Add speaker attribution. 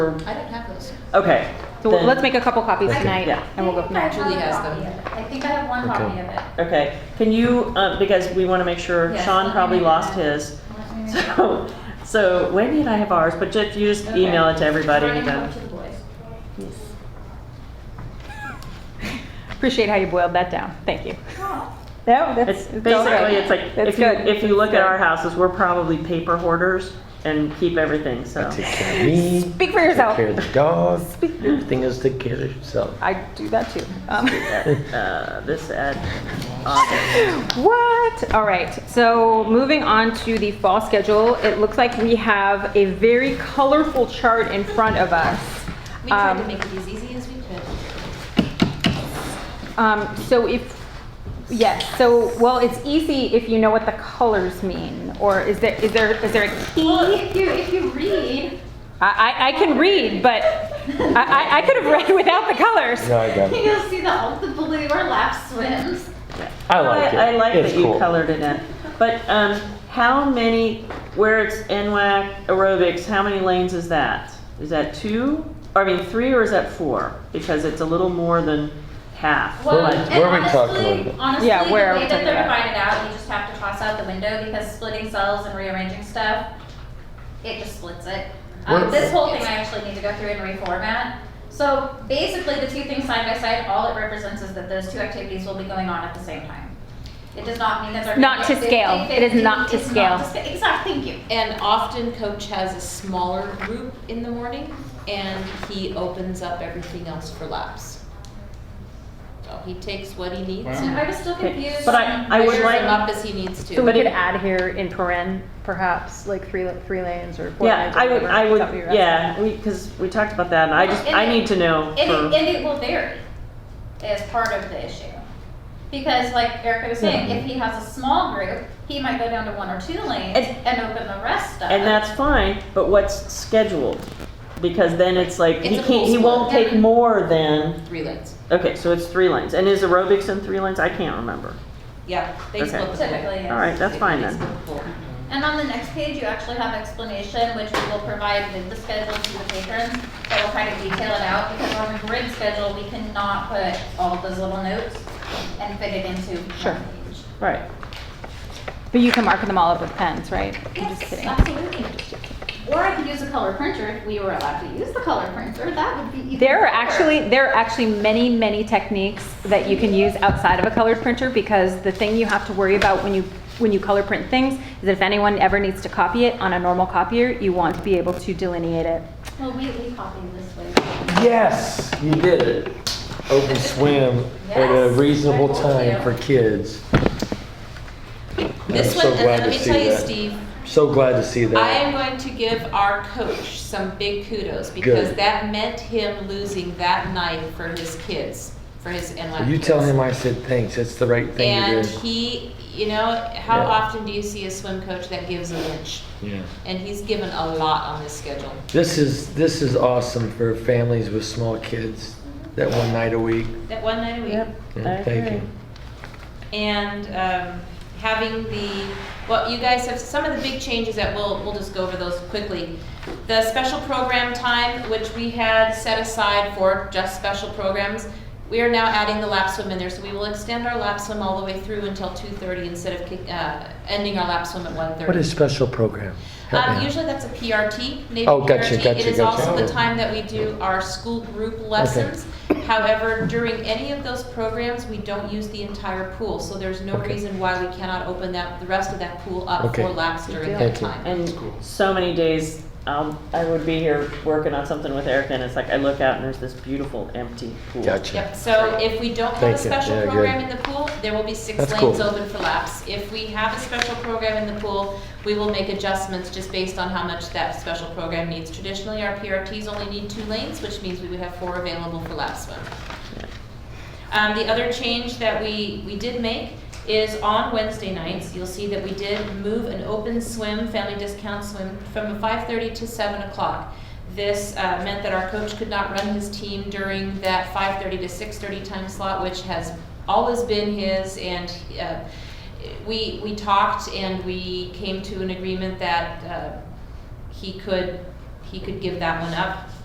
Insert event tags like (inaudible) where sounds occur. Speaker 1: I don't have those.
Speaker 2: Okay.
Speaker 3: So
Speaker 2: then-
Speaker 3: let's make a couple copies
Speaker 2: Okay,
Speaker 3: tonight,
Speaker 2: yeah.
Speaker 3: and we'll go from there.
Speaker 1: Julie has them.
Speaker 4: I think I have one
Speaker 5: Okay.
Speaker 4: copy of it.
Speaker 2: Okay, can you, um, because we want to make sure,
Speaker 4: Yes, let
Speaker 2: Sean
Speaker 4: me
Speaker 2: probably
Speaker 4: know.
Speaker 2: lost his.
Speaker 4: Let
Speaker 2: (laughs)
Speaker 4: me-
Speaker 2: So, so Wendy and I have ours, but just, you just
Speaker 4: Okay.
Speaker 2: email it to everybody.
Speaker 4: Trying to
Speaker 2: then.
Speaker 4: help to the boys.
Speaker 3: Appreciate how you boiled that down. Thank you. No, that's
Speaker 2: Oh. It's
Speaker 3: it's all
Speaker 2: basically,
Speaker 3: good.
Speaker 2: it's like,
Speaker 3: That's
Speaker 2: if you,
Speaker 3: good.
Speaker 2: if you look at
Speaker 3: That's
Speaker 2: our
Speaker 3: good.
Speaker 2: houses, we're probably paper hoarders and keep everything, so.
Speaker 5: Take care of me.
Speaker 3: Speak for
Speaker 5: Take
Speaker 3: yourself.
Speaker 5: care of the dog.
Speaker 3: Speak-
Speaker 5: Everything else take care of yourself.
Speaker 3: I do that too. Um, (laughs)
Speaker 2: Uh, this ad, August.
Speaker 3: what? All right. So moving on to the fall schedule, it looks like we have a very colorful chart in front of us.
Speaker 1: We tried to
Speaker 3: Um,
Speaker 1: make it as easy as we could.
Speaker 3: Um, so if, yes, so, well, it's easy if you know what the colors mean, or is there, is there, is there a
Speaker 4: Well,
Speaker 3: key?
Speaker 4: if you, if you read, (laughs)
Speaker 3: I, I, I can read, but I, I, I could have read (laughs) without the colors.
Speaker 5: No, I got it.
Speaker 4: you'll see the ultimately where lap swims.
Speaker 5: I like it.
Speaker 2: I like
Speaker 5: It's
Speaker 2: that you
Speaker 5: cool.
Speaker 2: colored it in. But, um, how many, where it's NWAC aerobics, how many lanes is that? Is that two? Or, I mean, three or is that four? Because it's a little more than half.
Speaker 4: Well,
Speaker 5: Where we-
Speaker 4: and
Speaker 5: where we
Speaker 4: honestly,
Speaker 5: talking about?
Speaker 4: honestly,
Speaker 3: Yeah, where
Speaker 4: the way
Speaker 3: are we
Speaker 4: that
Speaker 3: talking
Speaker 4: they're
Speaker 3: about?
Speaker 4: divided out, you just have to toss out the window because splitting cells and rearranging stuff, it just splits it. Um,
Speaker 5: What-
Speaker 4: this whole thing I actually need to go through and reformat. So basically, the two things side by side, all it represents is that those two activities will be going on at the same time. It does not mean that they're
Speaker 3: Not to
Speaker 4: 50,
Speaker 3: scale. It is not to
Speaker 4: it's
Speaker 3: scale.
Speaker 4: sca- exactly. Thank you.
Speaker 1: And often coach has a smaller group in the morning and he opens up everything else for laps. So he takes what he needs
Speaker 4: I
Speaker 1: and
Speaker 4: was still
Speaker 2: Okay,
Speaker 4: confused.
Speaker 2: but I- I would
Speaker 1: measures
Speaker 2: like-
Speaker 1: them up as he needs
Speaker 3: So
Speaker 1: to.
Speaker 3: we
Speaker 2: But
Speaker 3: could
Speaker 2: it-
Speaker 3: add here in paren, perhaps, like three, three lanes or four
Speaker 2: Yeah,
Speaker 3: lanes. or
Speaker 2: I would,
Speaker 3: whatever.
Speaker 2: I
Speaker 3: Is that what you're
Speaker 2: would, yeah,
Speaker 3: asking?
Speaker 2: we, because we talked about that, and I just,
Speaker 4: And
Speaker 2: I
Speaker 4: it-
Speaker 2: need to know
Speaker 4: And it,
Speaker 2: for,
Speaker 4: and it will vary as part of the issue. Because like Erica was saying, if he has a small group, he might go down to one or two lanes
Speaker 2: And-
Speaker 4: and open the rest up.
Speaker 2: and that's fine, but what's scheduled? Because then it's like, he
Speaker 1: It's a
Speaker 2: can't, he
Speaker 1: full
Speaker 2: won't
Speaker 4: split.
Speaker 2: take more than,
Speaker 1: Three lanes.
Speaker 2: okay, so it's three lanes, and is aerobics in three lanes? I can't remember.
Speaker 1: Yeah, they
Speaker 2: Okay.
Speaker 1: split the pool.
Speaker 4: Typically, yes.
Speaker 2: All right, that's
Speaker 1: They-
Speaker 2: fine
Speaker 1: they
Speaker 2: then.
Speaker 1: split the pool.
Speaker 4: And on the next page, you actually have explanation, which we will provide with the schedule to the patrons. That will kind of detail it out because on the grid schedule, we cannot put all those little notes and fit it into
Speaker 3: Sure.
Speaker 4: one page.
Speaker 2: Right.
Speaker 3: But you can mark them all up with pens, right? I'm just
Speaker 4: Yes,
Speaker 3: kidding.
Speaker 4: absolutely. Or I could use a color printer if we were allowed to use the color printer. That would be even
Speaker 3: There are
Speaker 4: better.
Speaker 3: actually there are actually many many techniques that you can use outside of a colored printer because the thing you have to worry about when you when you color print things is if anyone ever needs to copy it on a normal copier, you want to be able to delineate it.
Speaker 4: Well, we, we copy this way.
Speaker 5: Yes, you did it. Open swim at a
Speaker 4: Yes,
Speaker 5: reasonable
Speaker 4: I told
Speaker 5: time
Speaker 4: you.
Speaker 5: for kids. I'm
Speaker 1: This
Speaker 5: so
Speaker 1: one, and then
Speaker 5: glad
Speaker 1: let
Speaker 5: to
Speaker 1: me
Speaker 5: see
Speaker 1: tell you,
Speaker 5: that.
Speaker 1: Steve,
Speaker 5: So glad to see
Speaker 1: I
Speaker 5: that.
Speaker 1: am going to give our coach some big kudos because
Speaker 5: Good.
Speaker 1: that meant him losing that night for his kids, for his NY
Speaker 5: You
Speaker 1: kids.
Speaker 5: tell him I said thanks. That's the right thing to
Speaker 1: And
Speaker 5: do.
Speaker 1: he, you know, how
Speaker 5: Yeah.
Speaker 1: often do you see a swim coach that gives an inch?
Speaker 5: Yeah.
Speaker 1: And he's given a lot on this schedule.
Speaker 5: This is this is awesome for families with small kids. That one night a week.
Speaker 1: That one night a week.
Speaker 2: Yep.
Speaker 5: Yeah,
Speaker 2: I
Speaker 5: thank
Speaker 2: agree.
Speaker 5: you.
Speaker 1: and um, having the, well, you guys have some of the big changes that we'll, we'll just go over those quickly. The special program time, which we had set aside for just special programs, we are now adding the lap swim in there, so we will extend our lap swim all the way through until two thirty instead of kick- uh, ending our lap swim at one thirty.
Speaker 5: What is special program? Help me
Speaker 1: Um,
Speaker 5: out.
Speaker 1: usually that's a PRT, Navy
Speaker 5: Oh, gotcha,
Speaker 1: PRT. It
Speaker 5: gotcha,
Speaker 1: is
Speaker 5: gotcha.
Speaker 1: also the time that we do our school group lessons. However, during any of those programs, we don't use the entire pool, so there's no
Speaker 5: Okay.
Speaker 1: reason why we cannot open that, the rest of that pool up
Speaker 5: Okay.
Speaker 1: for laps during that
Speaker 5: Thank you.
Speaker 1: time.
Speaker 2: And so many days, um, I would be here working on something with Erica, and it's like I look out and there's this beautiful empty pool.
Speaker 5: Gotcha.
Speaker 1: Yep, so if we don't have
Speaker 5: Thank
Speaker 1: a
Speaker 5: you.
Speaker 1: special
Speaker 5: Yeah,
Speaker 1: program
Speaker 5: good.
Speaker 1: in the pool, there will be six
Speaker 5: That's
Speaker 1: lanes
Speaker 5: cool.
Speaker 1: open for laps. If we have a special program in the pool, we will make adjustments just based on how much that special program needs. Traditionally, our PRTs only need two lanes, which means we would have four available for lap swim. Um, the other change that we, we did make is on Wednesday nights, you'll see that we did move an open swim, family discount swim, from five thirty to seven o'clock. This, uh, meant that our coach could not run his team during that five thirty to six thirty time slot, which has always been his, and, uh, we, we talked and we came to an agreement that, uh, he could, he could give that one up.